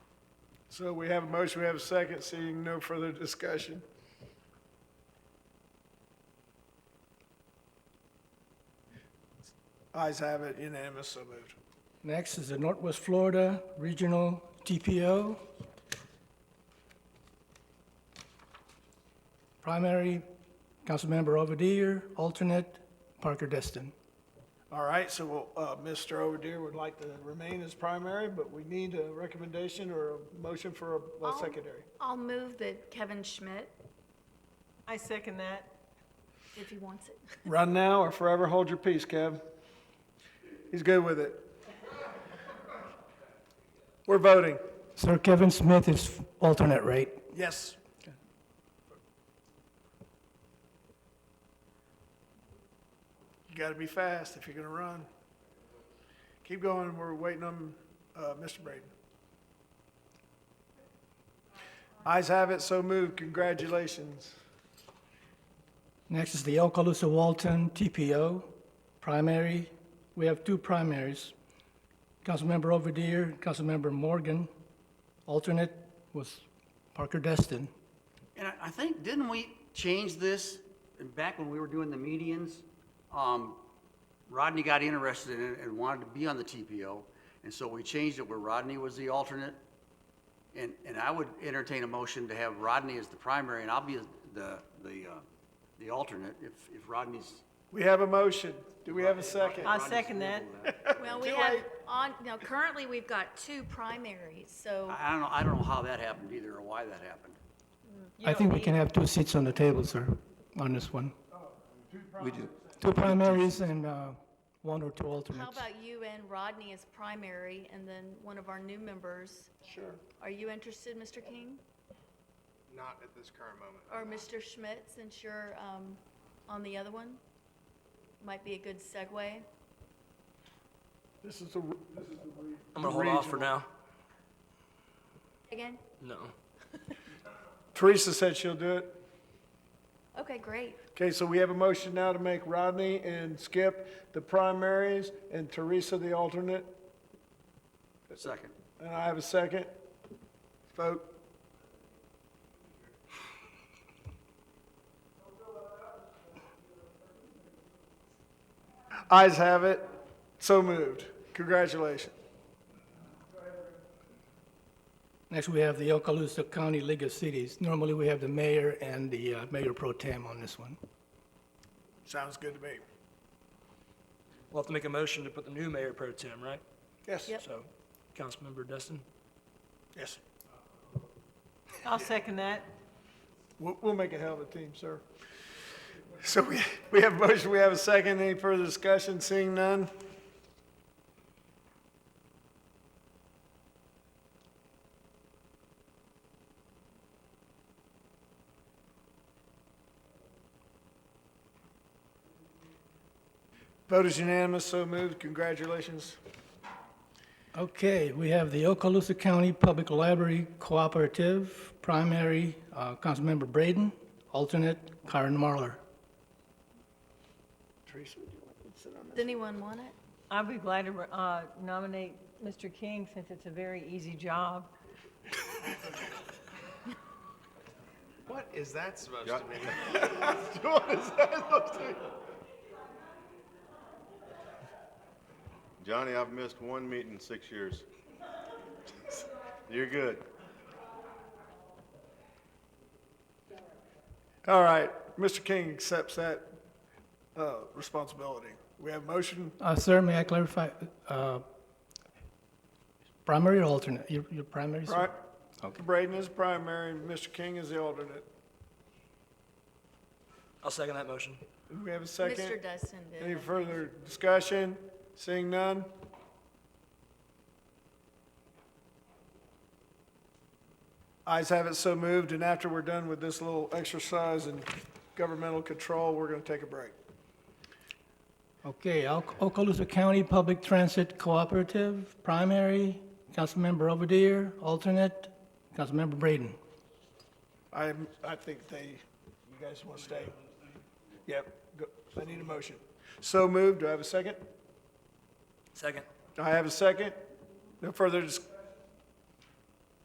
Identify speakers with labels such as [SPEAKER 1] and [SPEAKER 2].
[SPEAKER 1] So we have a motion, we have a second, seeing no further discussion. Eyes have it, unanimous, so moved.
[SPEAKER 2] Next is the Northwest Florida Regional TPO. Primary, Councilmember Overdeer, alternate, Parker Destin.
[SPEAKER 1] All right, so we'll, uh, Mr. Overdeer would like to remain as primary, but we need a recommendation or a motion for a- a
[SPEAKER 3] I'll-
[SPEAKER 1] secondary.
[SPEAKER 3] I'll move that Kevin Schmidt,
[SPEAKER 4] I second that.
[SPEAKER 3] if he wants it.
[SPEAKER 1] Run now or forever hold your peace, Kev. He's good with it. We're voting.
[SPEAKER 2] Sir Kevin Smith is alternate, right?
[SPEAKER 1] Yes. You gotta be fast if you're gonna run. Keep going, we're waiting on, uh, Mr. Braden. Eyes have it, so moved, congratulations.
[SPEAKER 2] Next is the Okaloosa Walton TPO. Primary, we have two primaries. Councilmember Overdeer, Councilmember Morgan. Alternate was Parker Destin.
[SPEAKER 5] And I, I think, didn't we change this back when we were doing the medians? Um, Rodney got interested in it and wanted to be on the TPO, and so we changed it where Rodney was the alternate. And, and I would entertain a motion to have Rodney as the primary, and I'll be the, the, uh, the alternate if, if Rodney's.
[SPEAKER 1] We have a motion, do we have a second?
[SPEAKER 4] I second that.
[SPEAKER 3] Well, we have, on, now currently, we've got two primaries, so,
[SPEAKER 5] I, I don't know, I don't know how that happened either or why that happened.
[SPEAKER 4] You
[SPEAKER 2] I
[SPEAKER 4] don't
[SPEAKER 2] think we
[SPEAKER 4] need-
[SPEAKER 2] can have two seats on the table, sir, on this one.
[SPEAKER 6] We do.
[SPEAKER 2] Two primaries and uh, one or two
[SPEAKER 3] how
[SPEAKER 2] alternates.
[SPEAKER 3] about you and Rodney as primary, and then one of our new members?
[SPEAKER 1] Sure.
[SPEAKER 3] Are you interested, Mr. King?
[SPEAKER 7] Not at this current moment.
[SPEAKER 3] Or Mr. Schmidt, since you're, um, on the other one? Might be a good segue.
[SPEAKER 1] This is the, this is the. re-
[SPEAKER 8] I'm gonna hold off for now.
[SPEAKER 3] Again?
[SPEAKER 8] No.
[SPEAKER 1] Teresa said she'll do it.
[SPEAKER 3] Okay, great.
[SPEAKER 1] Okay, so we have a motion now to make Rodney and Skip the primaries and Teresa the alternate.
[SPEAKER 5] Second.
[SPEAKER 1] And I have a second. Vote. Eyes have it. So moved. Congratulations.
[SPEAKER 2] Next, we have the Okaloosa County League of Cities. Normally, we have the mayor and the uh, mayor pro tem on this one.
[SPEAKER 1] Sounds good to me.
[SPEAKER 8] We'll have to make a motion to put the new mayor pro tem, right?
[SPEAKER 1] Yes.
[SPEAKER 3] Yep.
[SPEAKER 8] So, Councilmember Destin?
[SPEAKER 1] Yes.
[SPEAKER 4] I'll second that.
[SPEAKER 1] We'll, we'll make it hell of a team, sir. So we, we have a motion, we have a second. Any further discussion? Seeing none? Vote is unanimous, so moved. Congratulations.
[SPEAKER 2] Okay, we have the Okaloosa County Public Library Cooperative, primary, uh, Councilmember Braden, alternate, Karen Marlar.
[SPEAKER 1] Teresa, would you like to sit on
[SPEAKER 3] Does anyone want it?
[SPEAKER 4] I'd be glad to uh, nominate Mr. King since it's a very easy job.
[SPEAKER 7] What is that supposed to mean?
[SPEAKER 6] Johnny, I've missed one meeting in six years. You're good.
[SPEAKER 1] All right, Mr. King accepts that uh, responsibility. We have motion,
[SPEAKER 2] Uh, Sir, may I clarify, uh, primary or alternate? Your your primary, sir?
[SPEAKER 1] right? Braden is primary, and Mr. King is the alternate.
[SPEAKER 8] I'll second that motion.
[SPEAKER 1] Do we have a
[SPEAKER 3] Mr.
[SPEAKER 1] second?
[SPEAKER 3] Dustin did.
[SPEAKER 1] Any further discussion? Seeing none? Eyes have it so moved, and after we're done with this little exercise in governmental control, we're going to take a break.
[SPEAKER 2] Okay, Al- Okaloosa County Public Transit Cooperative, primary, Councilmember Overdeer, alternate, Councilmember Braden.
[SPEAKER 1] I, I think they, you guys want to stay? Yep, go- I need a motion. So moved, do I have a second?
[SPEAKER 8] Second.
[SPEAKER 1] I have a second. No further dis-